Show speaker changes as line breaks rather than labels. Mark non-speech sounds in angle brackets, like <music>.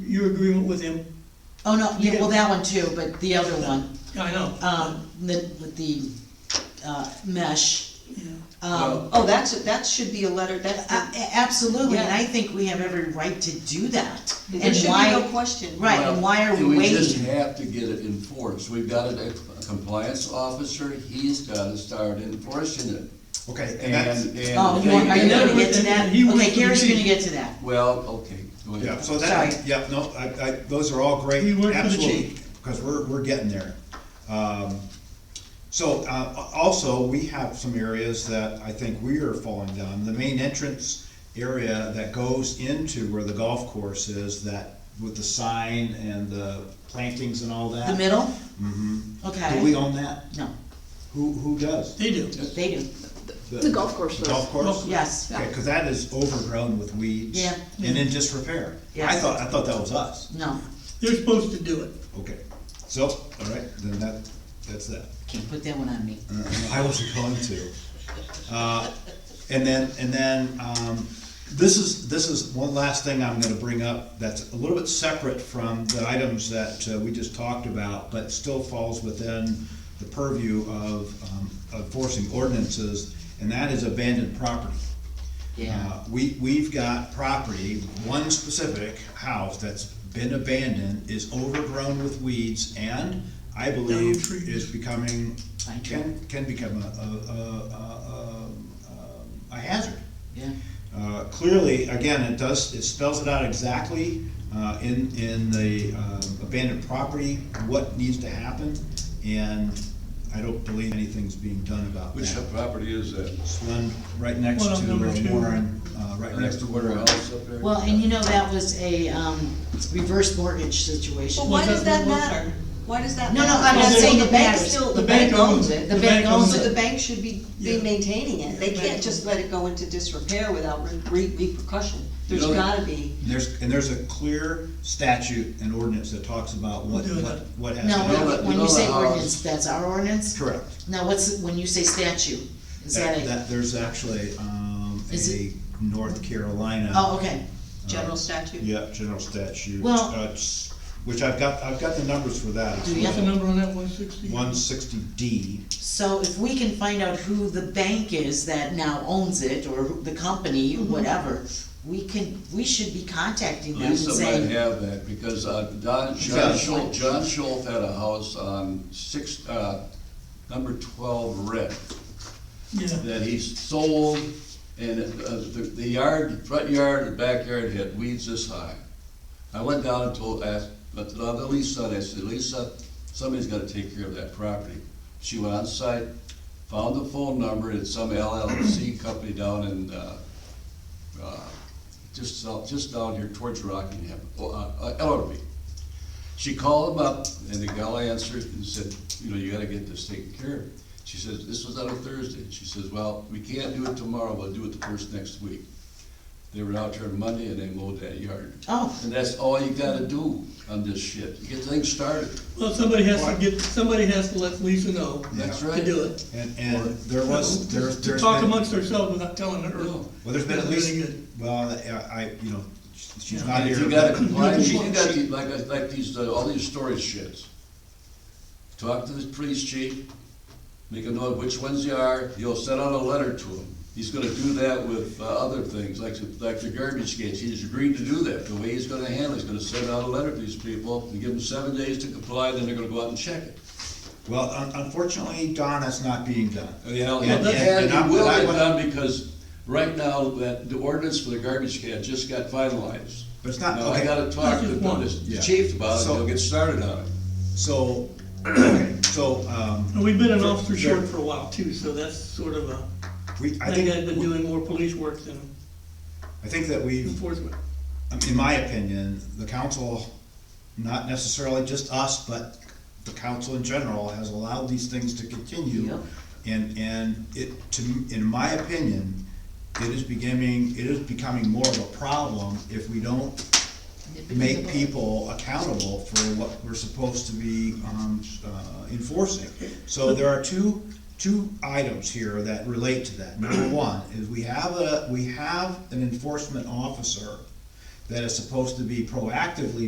your agreement with him?
Oh, no, yeah, well, that one too, but the other one,
I know.
um, the, with the, uh, mesh.
Yeah.
Um,
Oh, that's, that should be a letter, that's,
a- uh,
the-
a- absolutely, and
Yeah.
I think we have every right to do that.
there
And
should be no
why,
question.
Right, and why are
Well,
we
We just
waiting?
have to get it enforced, we've got a a compliance officer, he's gotta start enforcing it.
Okay, and that's,
And,
oh,
and,
you want- are you gonna get to that?
He wants
Okay,
to
Gary's
proceed.
gonna get to that.
well, okay, go
yeah,
ahead.
so that, yeah, no, I, I, those are all great,
You work for the
absolutely,
chief.
because we're, we're getting there. Um, So, uh, also, we have some areas that I think we are falling down, the main entrance area that goes into where the golf course is, that, with the sign and the plantings and all that.
The middle?
Mm-hmm. Do
Okay.
we own that?
No,
Who, who does?
They do.
they do,
The golf course
The
does.
golf course?
yes.
Okay, cause that is overgrown with weeds.
Yeah.
And in disrepair. I
Yes.
thought, I thought that was us.
No,
They're supposed to do it.
Okay, so, all right, then that, that's that.
can't put that one on me.
Uh, I wasn't going to. Uh, And then, and then, um, this is, this is one last thing I'm gonna bring up that's a little bit separate from the items that uh, we just talked about, but still falls within the purview of um, enforcing ordinances, and that is abandoned property.
Yeah,
Uh, We, we've got property, one specific house that's been abandoned, is overgrown with weeds, and I believe
trees.
is becoming,
Pine tree.
can, can become a, a- a, a, a, a hazard.
yeah.
Uh, Clearly, again, it does, it spells it out exactly uh, in, in the um, abandoned property, what needs to happen, and I don't believe anything's being done about that.
Which property is that?
It's one right next
Well,
to
number two.
Warren, uh, right
Next to
Warren.
warehouse up there?
Well, and you know, that was a, um, reverse mortgage situation.
Well, why does that
Well,
matter? Why does that
No,
matter?
no, I'm
not
Well,
saying
Oh, the
it
bank
matters.
Still,
The
the bank
bank owns
owns
it.
it.
The bank owns
So the
it.
bank should be, be
Yeah.
maintaining it. They
The
can't
bank
just
owns
let it go into disrepair without re- re- repercussion. There's
know that-
gotta be.
There's, and there's a clear statute and ordinance that talks about what,
We'll do
what,
that.
what has
No,
to
No,
happen.
but-
when- when
no,
you say
no, uh,
ordinance, that's our ordinance?
Correct.
Now, what's, when you say statute, is that
That,
a,
that, there's actually, um,
Is
a
it-
North Carolina.
oh, okay.
General statute?
Yeah, general statute.
Well-
uh, it's- Which I've got, I've got the numbers for that.
Do you
What's the number on that, one sixty?
One sixty D.
So if we can find out who the bank is that now owns it, or who- the company, whatever, we can, we should be contacting them and
Lisa might
saying,
have that, because, uh, Don, John
Yeah.
Schultz, John Schultz had a house on six, uh, number twelve Rick.
Yeah.
that he sold, and uh, the the yard, front yard and backyard had weeds this high. I went down and told, asked, but the other Lisa, and I said, Lisa, somebody's gotta take care of that property. She went on site, found the phone number, it's some LLC company down in, uh, uh, just south, just down here towards Rockingham, oh, uh, uh, Ellerby. She called him up, and the gal answered and said, you know, you gotta get this taken care of. She says, this was on a Thursday. She says, well, we can't do it tomorrow, we'll do it the first next week. They were out there on Monday and they mowed that yard.
oh,
And that's all you gotta do on this shit, you get things started,
Well, somebody has to get, somebody has to let Lisa know
that's
Yeah.
right.
to do it.
And, and there was, there,
To
there's
Talk
been-
amongst ourselves without telling her.
No.
Well, there's been at
That's
least,
really good.
well, I, I- you know, she's
Yeah.
not
And
here.
if you gotta
but-
comply,
Not
you
here.
got, the- like, like these, uh, all these storage sheds. Talk to the police chief, make a note which ones they are, you'll send out a letter to him. He's gonna do that with uh, other things, like, the- like the garbage cans, he's agreed to do that. The way he's gonna handle it, he's gonna send out a letter to these people, and give them seven days to comply, then they're gonna go out and check it.
Well, un- unfortunately, Don, that's not being done.
Oh, Yeah,
Yeah,
and,
yeah,
and
and
it will
I-
get done because right now, that, the ordinance for the garbage can just got finalized.
But it's not-
Now, I
okay.
gotta talk
That's
to
just one.
the- the
Yeah.
chief about it,
So-
they'll get started on it.
So, <clears throat> okay, so, um,
And we've been an officer
Sure.
short for a while too, so that's sort of a,
we, I
that guy's been
think,
doing more police work than
I think that we've,
enforcement.
I mean, in my opinion, the council, not necessarily just us, but the council in general, has allowed these things to continue.
Yep.
And, and it, to, m- in my opinion, it is becoming, it is becoming more of a problem if we don't make people accountable for what we're supposed to be, um, uh, enforcing. So there are two, two items here that relate to that. Number one is we have a, we have an enforcement officer that is supposed to be proactively